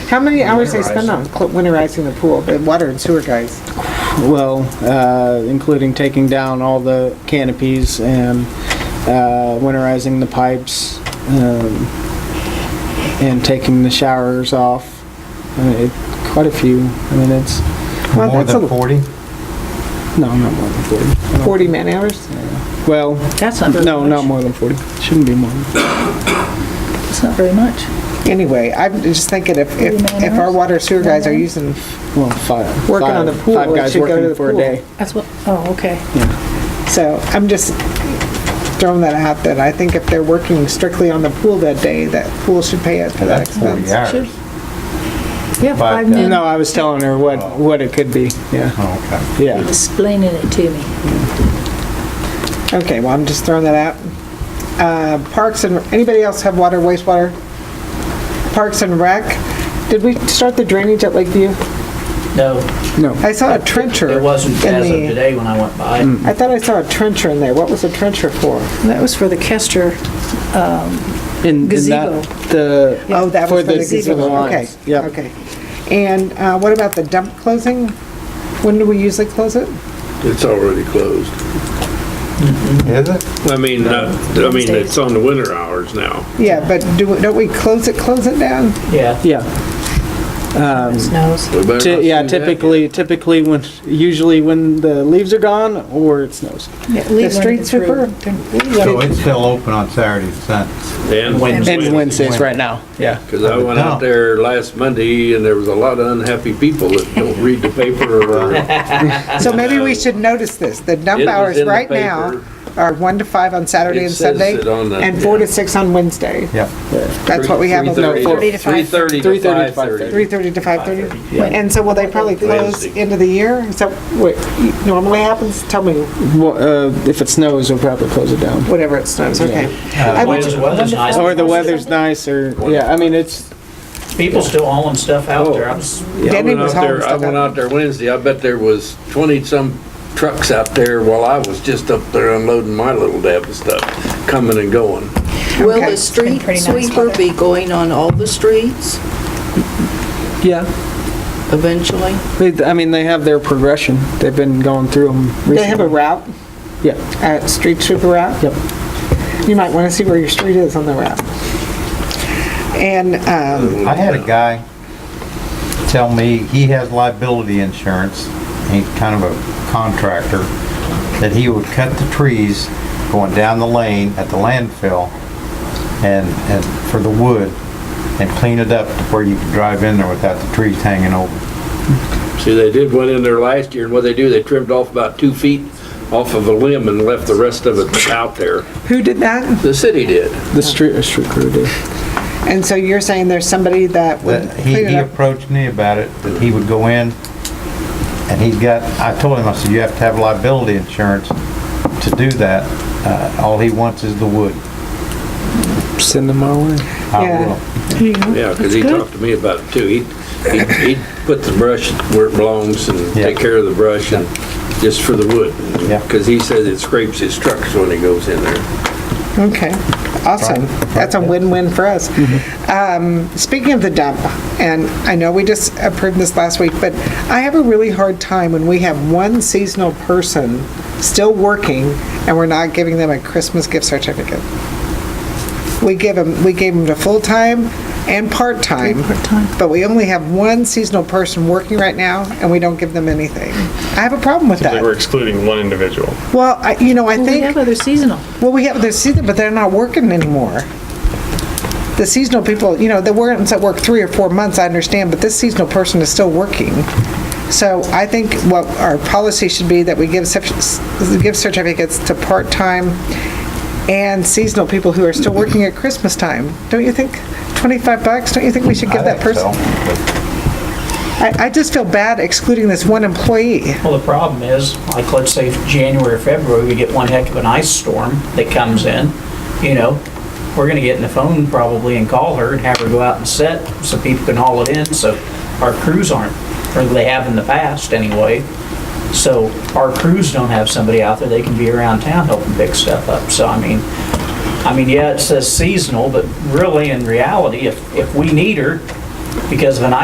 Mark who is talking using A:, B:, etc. A: How many hours they spend on cl- winterizing the pool, the water and sewer guys?
B: Well, uh, including taking down all the canopies and uh, winterizing the pipes um, and taking the showers off. I mean, it, quite a few. I mean, it's
A: Well,
C: More
A: that's a
C: than 40?
B: no, not more than forty.
A: Forty man hours?
B: Well,
D: That's not very much.
B: no, not more than forty. Shouldn't be more. Than
D: It's not very much.
A: Anyway, I'm just thinking if, if, if our water sewer guys are using,
B: well, five.
A: Working
B: five-
A: on the pool,
B: Five
A: it
B: guys
A: should go
B: working
A: to the
B: for
A: pool.
B: a day.
D: That's what, oh, okay.
A: so I'm just throwing that out that I think if they're working strictly on the pool that day, that pool should pay it for that
C: That's 40
A: expense.
C: hours.
D: Yeah,
C: But,
D: five
C: uh,
D: minutes.
B: No, I was telling her what what it could be. Yeah,
C: Oh,
B: yeah.
D: Explaining it to me.
A: Okay, well, I'm just throwing that out. Uh, parks and, anybody else have water, wastewater? Parks and rec, did we start the drainage at Lakeview?
E: No,
B: No.
A: I saw a trencher.
E: it wasn't
A: in
E: as of
A: the- Hmm.
E: today when I went by.
A: I thought I saw a trencher in there. What was a trencher for?
D: That was for the Kester.
B: In,
D: Gazebo.
B: the
A: Oh, that was for the
B: for the
A: gazebo. Okay,
B: lines. Yep.
A: okay. And uh, what about the dump closing? When do we usually close it?
F: It's already closed.
C: okay. Is it?
F: I mean, not- I mean, it's on the winter hours now.
A: Yeah, but do, we- don't we close it, close it down?
E: Yeah,
B: Yeah.
D: Snows.
F: We better
B: Ty-
F: not
B: yeah,
F: do that.
B: typically, typically when, usually when the leaves are gone or it snows.
A: The street sweeper?
C: So it's still open on Saturdays, Sundays.
F: And
E: Wednesday.
B: And
F: Wednesday.
B: Wednesdays right now, yeah.
F: Cause I went out there last Monday and there was a lot of unhappy people that don't read the paper or.
A: So maybe we should notice this. The
F: It
A: dump
F: was
A: hours
F: in the
A: right now
F: paper.
A: are 1 to 5 on Saturday
F: It
A: and
F: says
A: Sunday,
F: it on the-
A: and 4 to 6 on Wednesday.
C: Yep.
A: That's what we have. on
B: No, four-
A: the
D: to five.
F: 3:30
B: 3:30
F: to
B: to
F: 5:30.
A: 3:30 to 5:30?
B: Yeah.
A: And so will they probably close
F: Wednesday.
A: end of the year? Is that what normally happens? Tell me,
B: Well, uh, if it snows, we'll probably close it down.
A: whatever it snows, okay. I would-
E: Weather's- weather's nice.
B: Or the weather's nice or, yeah, I mean, it's,
E: People still hauling stuff
A: Oh.
E: out there. I was,
F: Yeah, I
A: Denny
F: went
A: was
F: out
A: home
F: there, I
A: stuck
F: went
A: up.
F: out there Wednesday. I bet there was twenty-some trucks out there while I was just up there unloading my little dab of stuff, coming and going.
G: Will
A: Okay.
G: the street
D: pretty nice
G: sweeper be going on all the streets
B: yeah.
G: eventually?
B: They, I mean, they have their progression. They've been going through them recently.
A: They have a route?
B: Yeah,
A: uh, street sweeper route.
B: yep.
A: You might want to see where your street is on the route. And, um,
C: I had a guy tell me he has liability insurance, he's kind of a contractor, that he would cut the trees going down the lane at the landfill and, and for the wood and clean it up to where you could drive in there without the trees hanging over.
F: See, they did one in there last year and what they do, they trimmed off about two feet off of a limb and left the rest of it out there.
A: who did that?
F: The city did.
B: The street, uh, street crew did.
A: And so you're saying there's somebody that would
C: That he,
A: clean
C: he
A: it up?
C: approached me about it, that he would go in and he's got, I told him, I said, you have to have liability insurance to do that. Uh, all he wants is the wood.
B: Send them our way.
C: I
A: Yeah.
C: will.
F: Yeah, because he talked to me about it too. He'd, he'd- he'd put the brush where it belongs and
C: Yeah.
F: take care of the brush and just for the wood.
C: Yeah.
F: Because he says it scrapes his trucks when he goes in there.
A: Okay, awesome. That's a win-win for us. Um, Speaking of the dump, and I know we just approved this last week, but I have a really hard time when we have one seasonal person still working and we're not giving them a Christmas gift certificate. We give them, we gave them to full-time and part-time.
D: part-time.
A: But we only have one seasonal person working right now and we don't give them anything. I have a problem with
H: They were
A: that.
H: excluding one individual.
A: Well, I- you know, I
D: Well,
A: think.
D: we have other seasonal.
A: Well, we have the season, but they're not working anymore. The seasonal people, you know, the ones that work three or four months, I understand, but this seasonal person is still working. So I think what our policy should be that we give, cert- give certificates to part-time and seasonal people who are still working at Christmas time. Don't you think, 25 bucks, don't you think we should give
C: I
A: that
C: think so.
A: person? I, I just feel bad excluding this one employee.
E: well, the problem is, like, let's say January, or February, we get one heck of an ice storm that comes in, you know, we're gonna get in the phone probably and call her and have her go out and set so people can haul it in, so our crews aren't, or they have in the past anyway. So our crews don't have somebody out there, they can be around town helping pick stuff up, so I mean, I mean, yeah, it says seasonal, but really in reality, if, if we need her because of an ice